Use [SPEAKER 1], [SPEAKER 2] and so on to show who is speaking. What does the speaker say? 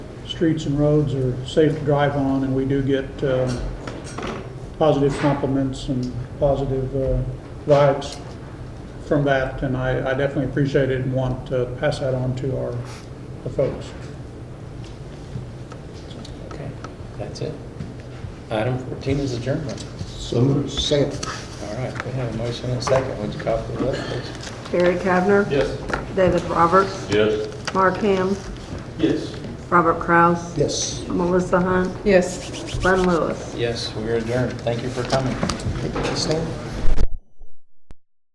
[SPEAKER 1] streets and roads are safe to drive on, and we do get um, positive compliments and positive uh, vibes from that, and I I definitely appreciate it and want to pass that on to our the folks.
[SPEAKER 2] Okay, that's it. Item 14 is adjournment.
[SPEAKER 3] So moved. Second.
[SPEAKER 2] All right, we have a motion and a second. Would you call for the vote, please?
[SPEAKER 4] Harry Cavner.
[SPEAKER 5] Yes.
[SPEAKER 4] David Roberts.
[SPEAKER 5] Yes.
[SPEAKER 4] Mark Ham.
[SPEAKER 5] Yes.
[SPEAKER 4] Robert Kraus.
[SPEAKER 3] Yes.
[SPEAKER 4] Melissa Hunt.
[SPEAKER 6] Yes.
[SPEAKER 4] Glenn Lewis.
[SPEAKER 2] Yes, we are adjourned. Thank you for coming.
[SPEAKER 3] Stand.